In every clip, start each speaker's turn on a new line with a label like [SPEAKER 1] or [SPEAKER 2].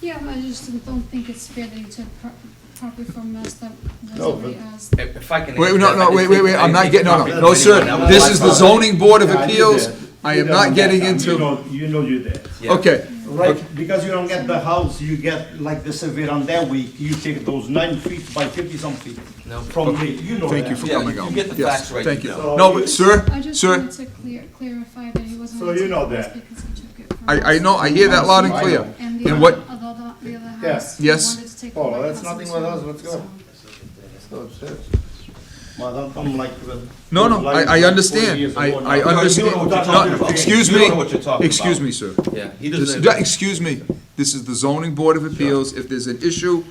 [SPEAKER 1] Yeah, I just don't think it's fair that you took pro- property from us that was
[SPEAKER 2] No,
[SPEAKER 1] already
[SPEAKER 2] but-
[SPEAKER 1] ours.
[SPEAKER 3] If if I can.
[SPEAKER 4] Wait, no, no, wait, wait, wait, I'm not getting, no, no, no,
[SPEAKER 2] That's
[SPEAKER 4] sir,
[SPEAKER 2] anyone else.
[SPEAKER 4] this is the zoning board of
[SPEAKER 2] Yeah, I did
[SPEAKER 4] appeals,
[SPEAKER 2] that.
[SPEAKER 4] I
[SPEAKER 2] You
[SPEAKER 4] am
[SPEAKER 2] don't
[SPEAKER 4] not
[SPEAKER 2] get
[SPEAKER 4] getting
[SPEAKER 2] them. You
[SPEAKER 4] into,
[SPEAKER 2] know, you know you're there.
[SPEAKER 4] okay,
[SPEAKER 2] Right, because you don't get the house, you get like the survey on that week, you take those nine feet by fifty some feet
[SPEAKER 3] No.
[SPEAKER 2] from me, you know
[SPEAKER 4] thank you
[SPEAKER 2] that.
[SPEAKER 4] for
[SPEAKER 3] Yeah,
[SPEAKER 4] coming
[SPEAKER 3] you
[SPEAKER 4] on.
[SPEAKER 3] get the
[SPEAKER 4] Yes,
[SPEAKER 3] facts right,
[SPEAKER 4] Thank you,
[SPEAKER 3] you
[SPEAKER 2] know.
[SPEAKER 4] no, but, sir,
[SPEAKER 1] I just
[SPEAKER 4] sir,
[SPEAKER 1] wanted to clear, clarify that he wasn't.
[SPEAKER 2] So
[SPEAKER 1] allowed to
[SPEAKER 2] you know
[SPEAKER 1] take this
[SPEAKER 2] that.
[SPEAKER 1] Because he took it from us.
[SPEAKER 4] I, I know, I hear that loud and clear.
[SPEAKER 1] And the
[SPEAKER 4] And
[SPEAKER 1] other,
[SPEAKER 4] what-
[SPEAKER 1] the other, the other
[SPEAKER 2] Yeah.
[SPEAKER 1] house. he
[SPEAKER 4] Yes.
[SPEAKER 1] wanted to take
[SPEAKER 5] Oh,
[SPEAKER 1] the
[SPEAKER 5] well,
[SPEAKER 1] white
[SPEAKER 5] that's
[SPEAKER 1] house
[SPEAKER 5] nothing
[SPEAKER 1] as
[SPEAKER 5] with
[SPEAKER 1] well,
[SPEAKER 5] us, let's go.
[SPEAKER 1] so-
[SPEAKER 2] Madam, I'm like. uh,
[SPEAKER 4] No, no,
[SPEAKER 2] like
[SPEAKER 4] I, I
[SPEAKER 2] 40
[SPEAKER 4] understand,
[SPEAKER 2] years
[SPEAKER 4] I,
[SPEAKER 2] old now.
[SPEAKER 4] I
[SPEAKER 2] You know what
[SPEAKER 4] understand,
[SPEAKER 2] you're talking
[SPEAKER 4] No,
[SPEAKER 2] about.
[SPEAKER 4] excuse
[SPEAKER 3] You
[SPEAKER 4] me,
[SPEAKER 3] don't know what you're talking
[SPEAKER 4] excuse
[SPEAKER 3] about.
[SPEAKER 4] me, sir.
[SPEAKER 3] Yeah, he
[SPEAKER 4] This-
[SPEAKER 3] doesn't.
[SPEAKER 4] yeah, Excuse me, this is the zoning board of appeals, if there's an issue,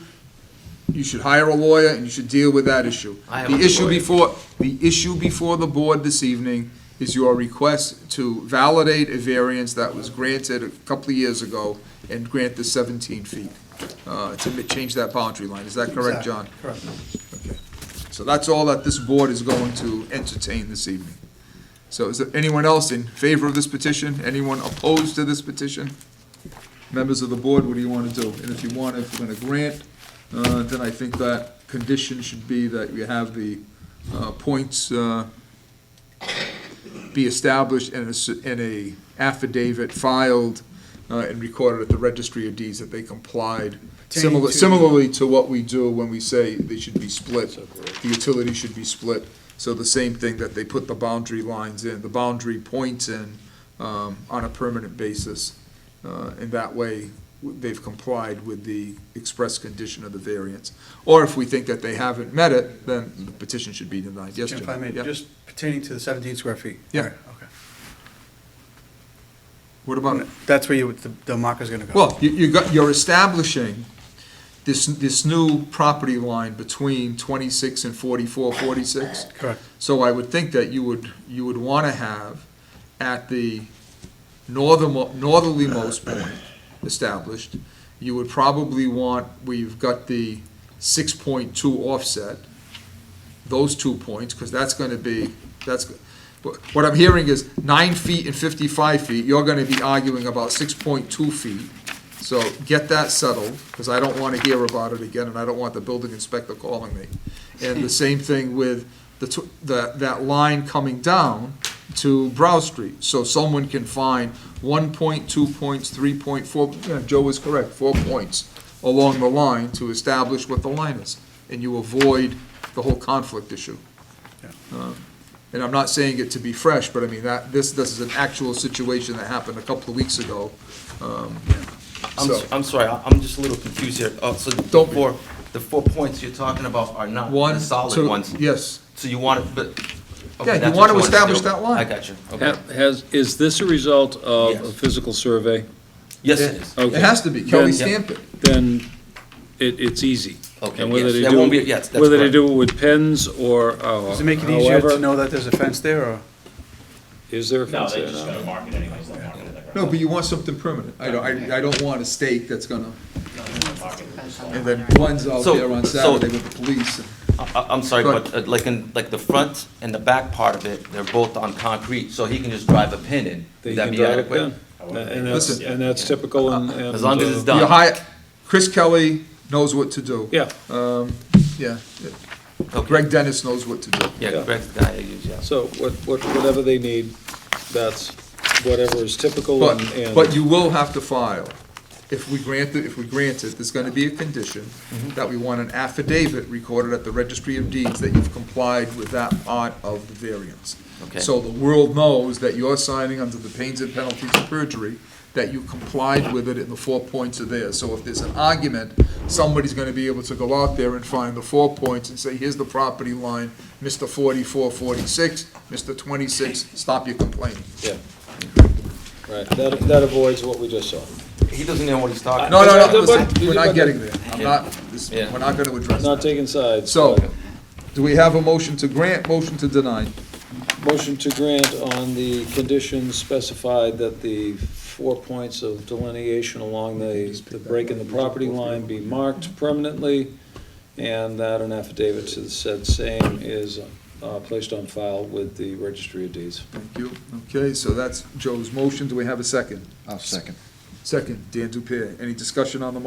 [SPEAKER 4] you should hire a lawyer and you should deal with that issue.
[SPEAKER 3] I have
[SPEAKER 4] The
[SPEAKER 3] a
[SPEAKER 4] issue
[SPEAKER 3] lawyer.
[SPEAKER 4] before, the issue before the board this evening is your request to validate a variance that was granted a couple of years ago and grant the seventeen feet, uh, to ma- change that boundary line, is that correct, John? Correct. So that's all that this board is going to entertain this evening. So is there anyone else in favor of this petition? Anyone opposed to this petition? Members of the board, what do you want to do? And if you want, if we're going to grant, uh, then I think that condition should be that you have the uh, points uh, be established and a, s- and a affidavit filed uh, and recorded at the registry of deeds that they complied. Similar, similarly to what we do when we say they should be split, the utility should be split. So the same thing that they put the boundary lines in, the boundary points in, um, on a permanent basis. Uh, and that way, w- they've complied with the express condition of the variance. Or if we think that they haven't met it, then the petition should be denied. Yes, John?
[SPEAKER 5] If I may,
[SPEAKER 4] Yeah.
[SPEAKER 5] just pertaining to the 17 square feet.
[SPEAKER 4] Yeah.
[SPEAKER 5] Okay.
[SPEAKER 4] What about it?
[SPEAKER 5] That's where you, would- the- the marker's gonna go.
[SPEAKER 4] Well, you, you got, you're establishing this, this new property line between twenty-six and forty-four, forty-six.
[SPEAKER 5] Correct.
[SPEAKER 4] So I would think that you would, you would wanna have at the northern, northerlymost point established, you would probably want, where you've got the six point two offset, those two points, because that's gonna be, that's, but what I'm hearing is nine feet and fifty-five feet, you're gonna be arguing about six point two feet. So get that settled, because I don't wanna hear about it again, and I don't want the building inspector calling me. And the same thing with the, tw- the, that line coming down to Brow Street, so someone can find one point, two points, three point, four, yeah, Joe was correct, four points along the line to establish what the line is, and you avoid the whole conflict issue. Um, And I'm not saying it to be fresh, but I mean, that, this, this is an actual situation that happened a couple of weeks ago. Um,
[SPEAKER 3] I'm,
[SPEAKER 4] so-
[SPEAKER 3] s- I'm sorry, I- I'm just a little confused here. Uh, so the
[SPEAKER 4] Don't be.
[SPEAKER 3] four, the four points you're talking about are not
[SPEAKER 4] One,
[SPEAKER 3] the solid
[SPEAKER 4] two-
[SPEAKER 3] ones.
[SPEAKER 4] Yes,
[SPEAKER 3] So you want it, but. okay,
[SPEAKER 4] Yeah, you
[SPEAKER 3] that's
[SPEAKER 4] want
[SPEAKER 3] what
[SPEAKER 4] to
[SPEAKER 3] do.
[SPEAKER 4] establish that line.
[SPEAKER 3] I got you. Okay.
[SPEAKER 6] Ha- Has, is this a result of a
[SPEAKER 3] Yes.
[SPEAKER 6] physical survey?
[SPEAKER 3] Yes, it is.
[SPEAKER 4] it has to be, can we stamp it?
[SPEAKER 6] Then it, it's easy.
[SPEAKER 3] Okay,
[SPEAKER 6] And whether
[SPEAKER 3] yes,
[SPEAKER 6] they
[SPEAKER 3] that
[SPEAKER 6] do-
[SPEAKER 3] won't be- yes, that's
[SPEAKER 6] Whether they
[SPEAKER 3] correct.
[SPEAKER 6] do it with pens or uh,
[SPEAKER 5] Does it make it easier to
[SPEAKER 6] however,
[SPEAKER 5] know that there's a fence there, or?
[SPEAKER 6] is there a
[SPEAKER 7] No,
[SPEAKER 6] fence
[SPEAKER 7] they
[SPEAKER 6] there
[SPEAKER 7] just
[SPEAKER 6] now?
[SPEAKER 7] gotta mark it anyways, they'll mark it.
[SPEAKER 4] No, but you want something permanent, I don't, I, I don't want a stake that's gonna, and then one's out
[SPEAKER 3] So-
[SPEAKER 4] there on
[SPEAKER 3] so-
[SPEAKER 4] Saturday with the police.
[SPEAKER 3] I, I'm sorry,
[SPEAKER 4] Go ahead.
[SPEAKER 3] but uh, like in, like the front and the back part of it, they're both on concrete, so he can just drive a pin in.
[SPEAKER 6] They
[SPEAKER 3] Would that
[SPEAKER 6] can
[SPEAKER 3] be
[SPEAKER 6] drive it
[SPEAKER 3] adequate?
[SPEAKER 6] down. And that's,
[SPEAKER 4] Listen.
[SPEAKER 6] and that's typical and.
[SPEAKER 3] As long as it's
[SPEAKER 6] and, uh,
[SPEAKER 3] done.
[SPEAKER 4] You hire, Chris Kelly knows what to do.
[SPEAKER 6] Yeah,
[SPEAKER 4] Yeah,
[SPEAKER 3] Okay.
[SPEAKER 4] Greg Dennis knows what to do.
[SPEAKER 3] Yeah,
[SPEAKER 6] Yeah.
[SPEAKER 3] Greg's the guy I use, yeah.
[SPEAKER 6] so what, what, whatever they need, that's whatever is typical and.
[SPEAKER 4] But,
[SPEAKER 6] and-
[SPEAKER 4] but you will have to file. If we grant it, if we grant it, there's gonna be a condition
[SPEAKER 6] Mm-hmm.
[SPEAKER 4] that we want an affidavit recorded at the registry of deeds that you've complied with that part of the variance.
[SPEAKER 3] Okay.
[SPEAKER 4] So the world knows that you're signing under the pains and penalties of perjury, that you complied with it and the four points are there. So if there's an argument, somebody's gonna be able to go out there and find the four points and say, here's the property line, Mr. forty-four, forty-six, Mr. twenty-six, stop your complaining.
[SPEAKER 6] Yeah. Right, that, that avoids what we just saw.
[SPEAKER 3] He doesn't know what he's talking.
[SPEAKER 4] No, no, no,
[SPEAKER 6] But-
[SPEAKER 4] listen,
[SPEAKER 6] but-
[SPEAKER 4] we're not
[SPEAKER 6] but-
[SPEAKER 4] getting there. I'm not, this-
[SPEAKER 3] Yeah.
[SPEAKER 4] we're not gonna address
[SPEAKER 6] Not
[SPEAKER 4] that.
[SPEAKER 6] taking sides.
[SPEAKER 4] So,
[SPEAKER 6] but-
[SPEAKER 4] do we have a motion to grant, motion to deny?
[SPEAKER 6] Motion to grant on the conditions specified that the four points of delineation along the, the break in the property line be marked permanently, and that an affidavit to the said same is uh, placed on file with the registry of deeds.
[SPEAKER 4] Thank you. Okay, so that's Joe's motion. Do we have a second?
[SPEAKER 8] I'll second.
[SPEAKER 4] Second, Dan Dupierre. Any discussion on the motion?